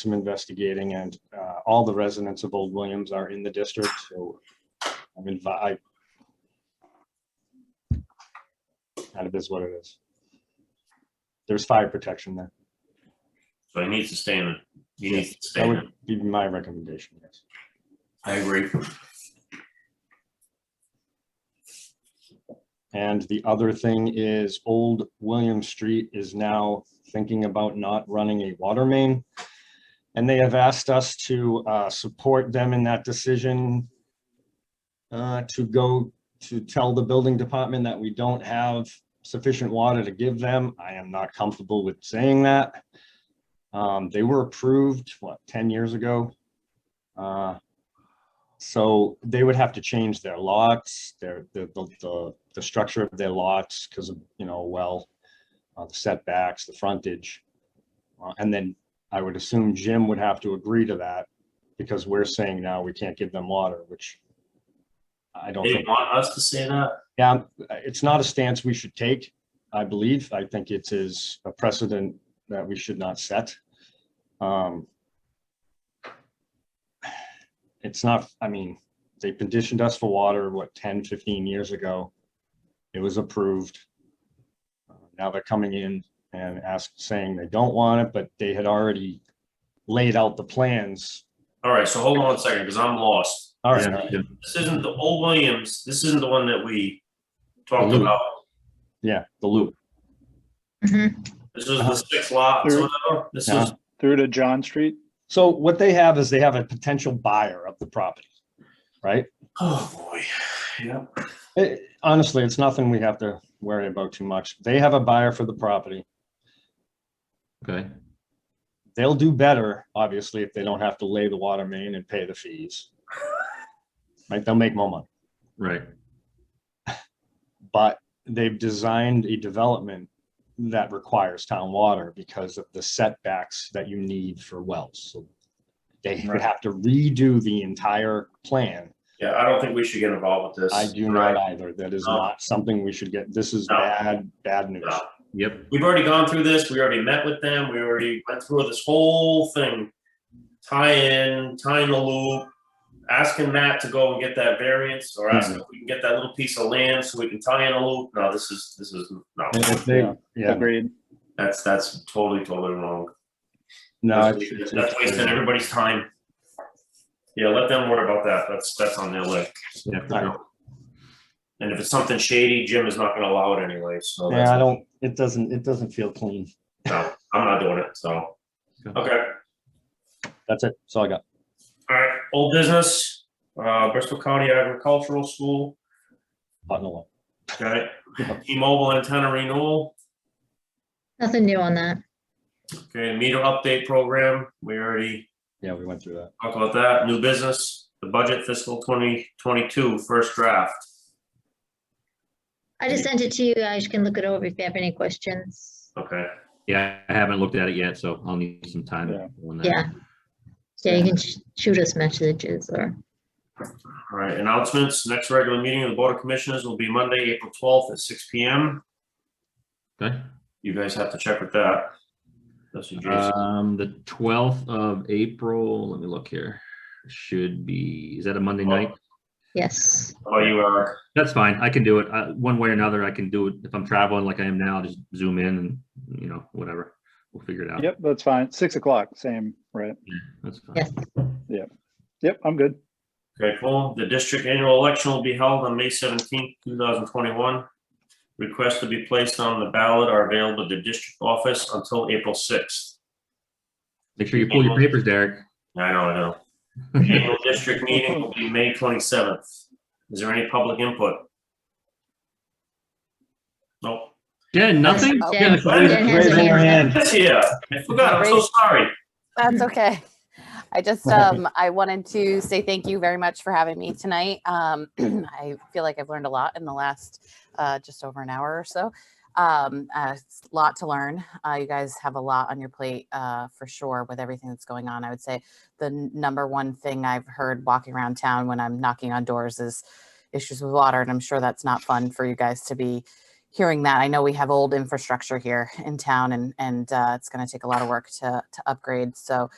some investigating and uh, all the residents of Old Williams are in the district, so I'm advi, I- kind of is what it is. There's fire protection there. So he needs to stay in it. He needs to stay That in it. would be my recommendation, yes. I agree. And the other thing is Old William Street is now thinking about not running a water main. And they have asked us to uh, support them in that decision uh, to go to tell the building department that we don't have sufficient water to give them. I am not comfortable with saying that. Um, They were approved, what, 10 years ago? Uh, so they would have to change their lots, their, the, the, the, the structure of their lots because of, you know, well, uh, the setbacks, the frontage. Uh, and then I would assume Jim would have to agree to that because we're saying now we can't give them water, which I don't They think, want us to say that? yeah, it's not a stance we should take, I believe. I think it is a precedent that we should not set. Um, it's not, I mean, they petitioned us for water, what, 10, 15 years ago? It was approved. Uh, Now they're coming in and ask, saying they don't want it, but they had already laid out the plans. All right, so hold on a second, because I'm lost. All right, This isn't the old Williams, this isn't the one that we talked Blue. about. yeah, the loop. This is the six lots, Uh-huh. Blue. whatever. This Yeah. is, through to John Street. So what they have is they have a potential buyer of the property, right? oh, boy. Yeah. Eh, Honestly, it's nothing we have to worry about too much. They have a buyer for the property. Okay, They'll do better, obviously, if they don't have to lay the water main and pay the fees. Like, they'll make more money, right. but they've designed a development that requires town water because of the setbacks that you need for wells. So They would Right. have to redo the entire plan. Yeah, I don't think we should get involved with this. I do not either. That is No. not something we should get. This is No. bad, bad news. No. Yep, We've already gone through this, we already met with them, we already went through this whole thing. Tie in, tie in the loop, asking Matt to go and get that variance, or ask if we can get that little piece of land so we can tie in a loop, no, this is, this is, no, And if they- Yeah. Yeah, Agreed. that's, that's totally, totally wrong. no. That's it's- it's- that's wasting everybody's time. Yeah, let them worry about that, that's, that's on their list. All right. And if it's something shady, Jim is not gonna allow it anyway, so. that's- Yeah, I don't, it doesn't, it doesn't feel clean. No, I'm not doing it, so, Okay. okay. That's it. That's all I got. All right, old business, uh, Bristol County Agricultural School, Button alone. okay, T-Mobile antenna renewal, Nothing new on that. okay, meter update program, we already Yeah, we went through that. talked about that, new business, the budget fiscal 2022 first draft. I just sent it to you guys. You can look it over if you have any questions. Okay, yeah, I haven't looked at it yet, so I'll need some time. on that. Yeah. Yeah, you can sh- shoot us messages or, all right, announcements, next regular meeting of the Board of Commissioners will be Monday, April 12th at 6 PM. Okay, You guys have to check with that. That's what Jason, um, the twelfth of April, let me look here, should be, is that a Monday Oh. night? yes. oh, you are, That's fine, I can do it, uh, one way or another, I can do it, if I'm traveling like I am now, I'll just zoom in and, you know, whatever, we'll figure it out. Yep, that's fine. Six o'clock, same, right? That's fine. Yes. Yep, I'm good. okay, cool, the district annual election will be held on May 17th, 2021. Requests to be placed on the ballot are available at the district office until April sixth. Make sure you pull your papers, Derek. I know, I know. The Annual district meeting will be May twenty-seventh. Is there any public input? Nope. Jen, nothing? Jen- Yeah, sorry. Jen has her hand Yes, yeah, I forgot, I'm so sorry. That's okay. I just, um, I wanted to say thank you very much for having me tonight. Um, I feel like I've learned a lot in the last, uh, just over an hour or so. Um, a lot to learn. Uh, you guys have a lot on your plate, uh, for sure with everything that's going on. I would say the n- number one thing I've heard walking around town when I'm knocking on doors is issues with water. And I'm sure that's not fun for you guys to be hearing that. I know we have old infrastructure here in town and, and uh, it's going to take a lot of work to, to upgrade. So